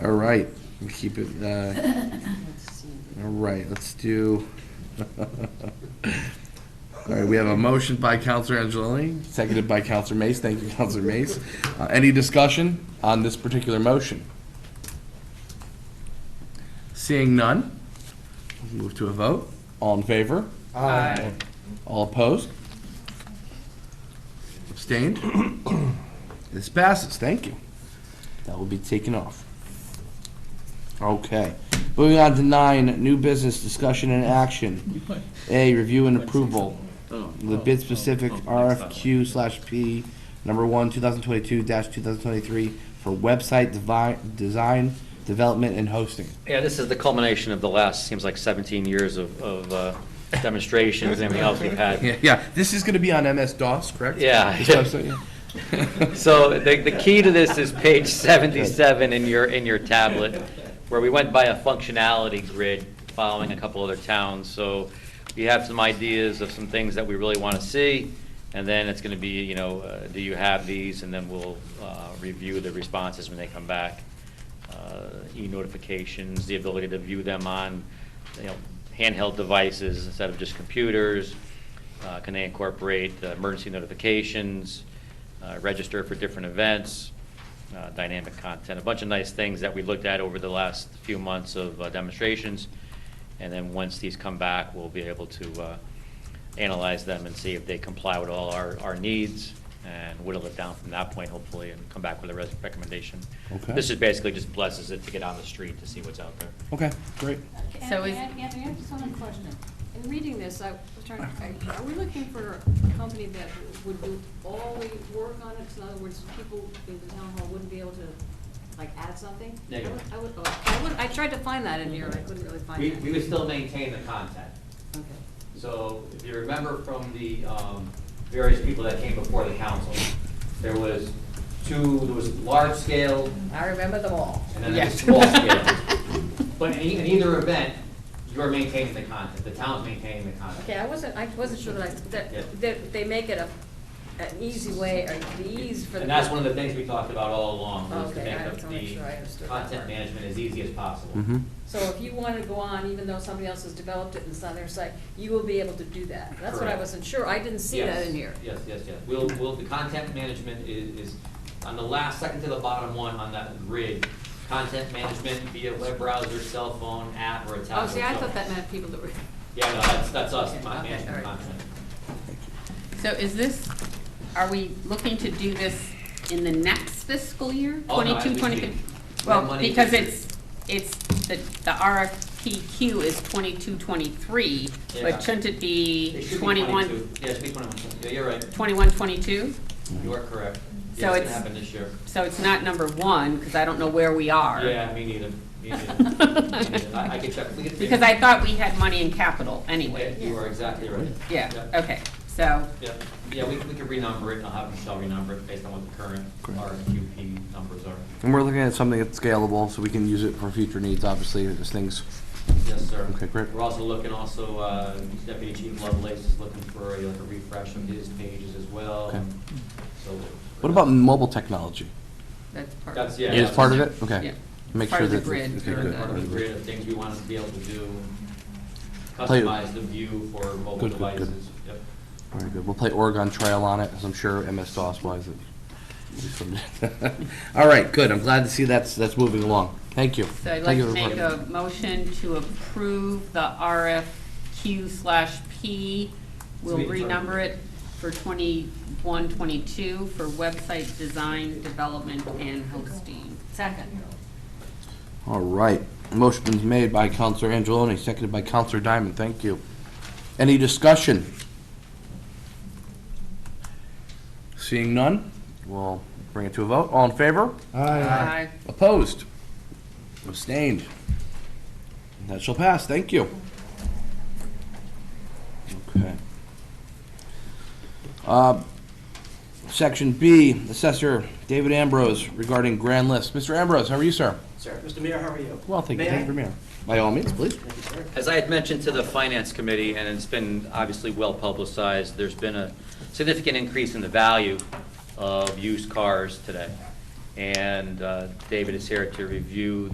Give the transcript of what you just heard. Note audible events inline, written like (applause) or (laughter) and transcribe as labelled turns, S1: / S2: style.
S1: right, we keep it, uh, all right, let's do. (laughs) All right, we have a motion by Counselor Angelini, seconded by Counselor Mace. Thank you, Counselor Mace. Uh, Any discussion on this particular motion? Seeing none, we'll move to a vote. All in favor?
S2: Aye.
S1: All opposed? Abstained? (coughs) This passes, thank you. That will be taken off. Okay, moving on to nine, new business discussion and action. A, review and approval, the bid specific RFQ slash P, number one, two thousand twenty-two dash two thousand twenty-three for website devi- design, development, and hosting.
S3: Yeah, this is the culmination of the last, seems like 17 years of of uh, demonstrations and everything else we've had.
S1: (laughs) Yeah, yeah, this is gonna be on MS-DOS, correct?
S3: Yeah. (laughs)
S1: That's what I'm saying, yeah. (laughs)
S3: So the the key to this is page 77 in your, in your tablet, where we went by a functionality grid following a couple other towns. So we have some ideas of some things that we really want to see, and then it's going to be, you know, uh, do you have these? And then we'll uh, review the responses when they come back. uh, e-notifications, the ability to view them on, you know, handheld devices instead of just computers? Uh, Can they incorporate uh, emergency notifications, uh, register for different events, uh, dynamic content? A bunch of nice things that we looked at over the last few months of uh, demonstrations. And then once these come back, we'll be able to uh, analyze them and see if they comply with all our, our needs and whittle it down from that point hopefully and come back with a res- recommendation.
S1: Okay.
S3: This is basically just blesses it to get on the street to see what's out there.
S1: Okay, great.
S4: So
S5: Anthony,
S4: is-
S5: Anthony, I have just one question. In reading this, I was trying,
S3: Uh-huh.
S5: to- are we looking for a company that would do all the work on it? So In other words, people in the town hall wouldn't be able to, like, add something?
S3: There you
S5: I
S3: go.
S5: would- I would, oh, I would, I tried to find that in here, and I couldn't really find
S3: We,
S5: it.
S3: we would still maintain the content.
S5: Okay.
S3: So if you remember from the um, various people that came before the council, there was two, there was large scale
S4: I remember them all.
S3: and then there was small scale.
S5: (laughs)
S3: But in e- in either event, you're maintaining the content, the town's maintaining the content.
S5: Okay, I wasn't, I wasn't sure that, I-
S3: Yeah.
S5: that, that they make it a, an easy way, or the ease for the.
S3: And that's one of the things we talked about all along, was to
S5: Okay,
S3: make
S5: I
S3: the
S5: just wanna make sure I understood
S3: the
S5: that
S3: content
S5: part.
S3: management as easy as possible.
S1: Mhm.
S5: So if you want to go on, even though somebody else has developed it and it's on their site, you will be able to do that. That's what I
S3: Correct.
S5: wasn't sure, I didn't see that
S3: Yes,
S5: in here.
S3: Yes, yes, yes. We'll, we'll, the content management is, is on the last, second to the bottom one on that grid. Content management via web browser, cell phone, app, or a tablet.
S5: Oh, see, I
S3: so-
S5: thought that meant people that were,
S3: Yeah, no, that's, that's us,
S5: Okay,
S3: my
S5: okay,
S3: management
S5: all right.
S3: content.
S4: So is this, are we looking to do this in the next fiscal year?
S3: Oh, no, I-
S4: 22,
S3: we
S4: 23?
S3: need- we have
S4: Well,
S3: money
S4: because
S3: to-
S4: it's, it's, the the RFPQ is 22, 23,
S3: Yeah.
S4: but shouldn't it
S3: It
S4: be
S3: should be
S4: 21,
S3: 22. Yeah, it should be twenty-one. Yeah, you're right.
S4: 21, 22?
S3: You are correct.
S4: So
S3: Yeah, it's
S4: it's-
S3: gonna happen this year.
S4: So it's not number one, because I don't know where we are.
S3: Yeah, me neither. Me neither. Me
S4: (laughs)
S3: neither. I, I could check. We could-
S4: Because I thought we had money in capital
S3: Yeah,
S4: anyway.
S3: You are exactly right.
S4: Yeah, okay, so,
S3: Yeah, yeah, we, we could renumber it, and I'll have Michelle renumber it based on what the current
S1: Correct.
S3: RFQP numbers are.
S1: And we're looking at something that's scalable, so we can use it for future needs, obviously, if there's things.
S3: Yes, sir.
S1: Okay, great.
S3: We're also looking, also, uh, Deputy Chief Lovelace is looking for a, like a refresh of his pages as well,
S1: Okay.
S3: so.
S1: What about mobile technology?
S4: that's part of
S3: That's,
S4: it.
S3: yeah.
S1: It is part of it? Okay.
S4: Yeah.
S1: Make
S4: Part
S1: sure
S4: of the
S1: that-
S4: grid
S1: okay,
S4: or
S1: good.
S4: the-
S3: Part of the grid of things we want to be able to do,
S1: Play-
S3: customize the view for mobile
S1: Good, good, good.
S3: devices. Yep.
S1: Very good. We'll play Oregon Trail on it, as I'm sure MS DOS wise. (laughs) it- All right, good. I'm glad to see that's, that's moving along. Thank you.
S4: So I'd
S1: Thank
S4: like
S1: you
S4: to
S1: for
S4: make
S1: reporting.
S4: a motion to approve the RFQ slash P. We'll
S3: Sweet.
S4: renumber it for twenty-one, twenty-two for website design, development, and hosting.
S5: second.
S4: uh,
S1: All right. Motion been made by Counselor Angeloni, seconded by Counselor Diamond. Thank you. Any discussion? Seeing none, we'll bring it to a vote. All in favor?
S4: Aye.
S1: Opposed? Abstained? That shall pass, thank you. Okay. Uh, Section B, Assessor David Ambrose regarding grand list. Mr. Ambrose, how are you, sir?
S6: Sir, Mr. Mayor, how are you?
S1: Well, thank you.
S6: May I?
S1: Thank you, Mayor. By all means, please.
S6: Thank you, sir.
S3: As I had mentioned to the Finance Committee, and it's been obviously well-publicized, there's been a significant increase in the value of used cars today. And uh, David is here to review